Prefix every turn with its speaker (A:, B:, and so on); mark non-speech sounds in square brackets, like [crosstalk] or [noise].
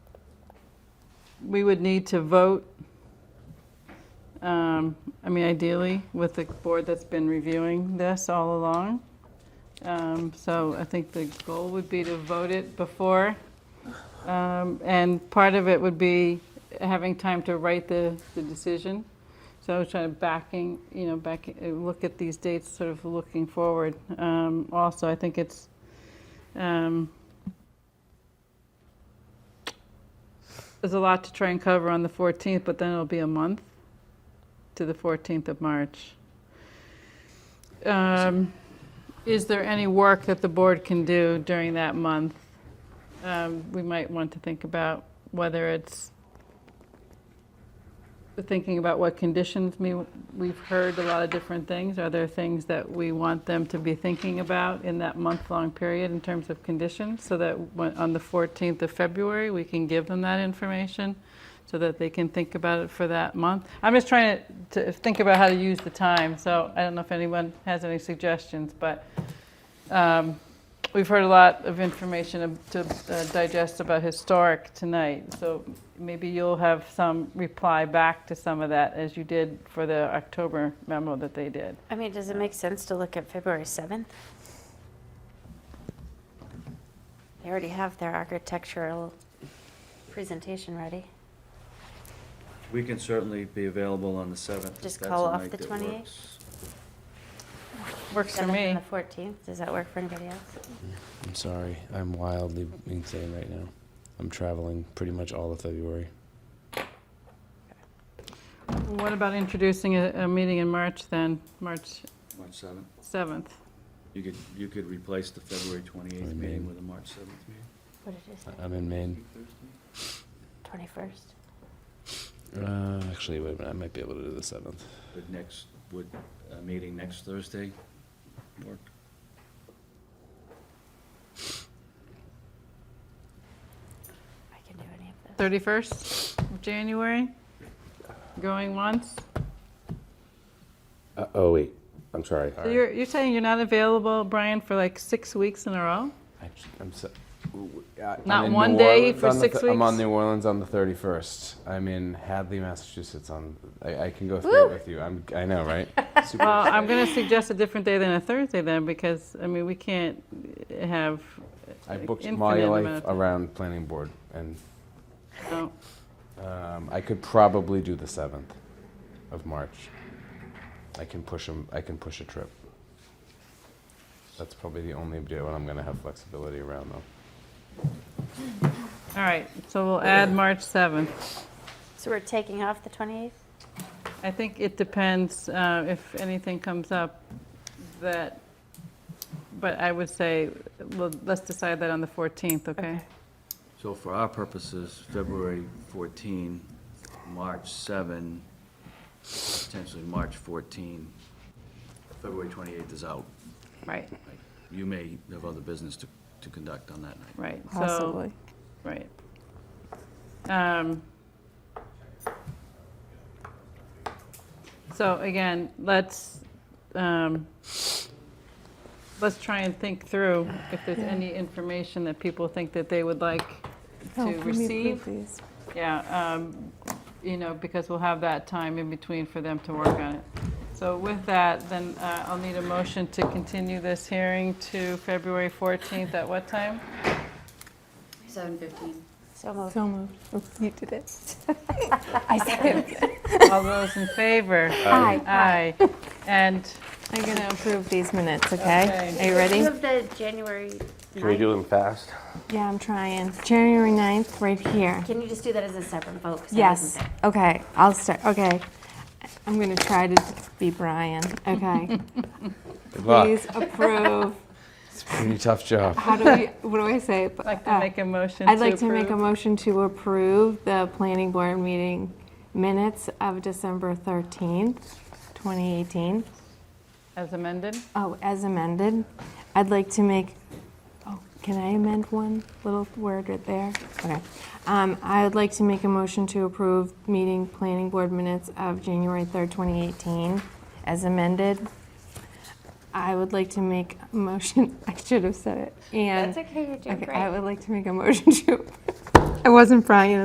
A: we would need to vote, um, I mean, ideally, with the board that's been reviewing this all along. Um, So I think the goal would be to vote it before. Um, And part of it would be having time to write the, the decision. So I was trying to backing, you know, back, uh, look at these dates, sort of looking forward. Um, Also, I think it's, um, there's a lot to try and cover on the 14th, but then it'll be a month to the 14th of March. Um, Is there any work that the board can do during that month? Um, We might want to think about whether it's, thinking about what conditions, me, we've heard a lot of different things. Are there things that we want them to be thinking about in that month-long period in terms of conditions? So that when- on the 14th of February, we can give them that information so that they can think about it for that month. I'm just trying to, to think about how to use the time, so I don't know if anyone has any suggestions, but um, we've heard a lot of information to uh, digest about historic tonight, so maybe you'll have some reply back to some of that as you did for the October memo that they did.
B: I mean, does it make sense to look at February 7th? They already have their architectural presentation ready.
C: We can certainly be available on the 7th. if
B: Just
C: that's
B: call
C: a
B: off
C: night
B: the
C: that
B: 28th?
C: works.
A: Works for
B: 7th
A: me.
B: and the 14th, does that work for anybody else?
D: I'm sorry. I'm wildly insane right now. I'm traveling pretty much all of February.
A: What about introducing a, a meeting in March then, March
C: March 7th.
A: 7th?
C: You could, you could replace the February 28th
D: Fine,
C: meeting
D: man.
C: with a March 7th meeting.
B: What did you say,
D: I- I'm in Maine.
B: 21st?
D: Uh, actually, wait a minute. I might be able to do the seventh.
C: Would next, would a meeting next Thursday work?
B: I can do any of those.
A: 31st of January? Going once?
E: Uh, oh, wait, I'm sorry.
A: So you're, you're saying you're not available, Brian, for like six weeks in a [laughs] row?
D: Actually, I'm so,
A: Not one day for six
D: I'm on
A: weeks?
D: New Orleans on the 31st. I'm in Hadley, Massachusetts. On I, I can go through
B: Woo!
D: it with you. I'm, I
A: [laughs]
D: know, right? Super
A: Well,
D: excited.
A: I'm going to suggest a different day than a Thursday then, because, I mean, we can't have,
D: I booked my
A: infinite amount
D: life
A: of time.
D: around planning board, and
A: no.
D: um, I could probably do the seventh of March. I can push 'em- I can push a trip. That's probably the only day when I'm going to have flexibility around, though.
A: All right, so we'll add March 7th.
B: So we're taking off the 28th?
A: I think it depends uh, if anything comes up that, but I would say, well, let's decide that on the 14th, okay?
C: So for our purposes, February 14, March 7, potentially March 14, February 28th is out.
A: Right,
C: Right. You may have other business to, to conduct on that night.
A: right. So-
F: Possibly.
A: Right. Um, So again, let's, um, let's try and think through if there's any information that people think that they would like
F: Oh,
A: to
F: can we approve
A: receive.
F: these?
A: Yeah, um, you know, because we'll have that time in between for them to work on it. So with that, then uh, I'll need a motion to continue this hearing to February 14th at what time?
G: Seven fifteen.
B: So moved.
F: So moved. Oh, You did it. I second.
A: All those in favor?
F: Hi.
A: Aye. And
F: I'm going to approve these minutes, okay?
A: Okay.
F: Are you ready?
B: Move the January
E: Can we
B: 9th.
E: do them fast?
F: Yeah, I'm trying. January 9th, right here.
B: Can you just do that as a separate vote? 'cause I wasn't
F: Yes,
B: there.
F: okay, I'll start, okay. I'm going to try to be Brian,
A: [laughs]
F: okay?
D: Good luck.
F: Please approve.
D: It's a [laughs] pretty tough job.
F: How do we, what do I say?
A: like
F: Uh,
A: to make a motion to
F: I'd like to make a
A: approve.
F: motion to approve the planning board meeting minutes of December 13th, 2018.
A: As amended?
F: Oh, as amended, I'd like to make, oh, can I amend one little word right there? Okay. Um, I would like to make a motion to approve meeting planning board minutes of January 3rd, 2018, as amended. I would like to make a motion, [laughs] I should have said it, and.
B: That's okay, you're doing
F: Okay,
B: great.
F: I would like to make a motion to, I wasn't Brian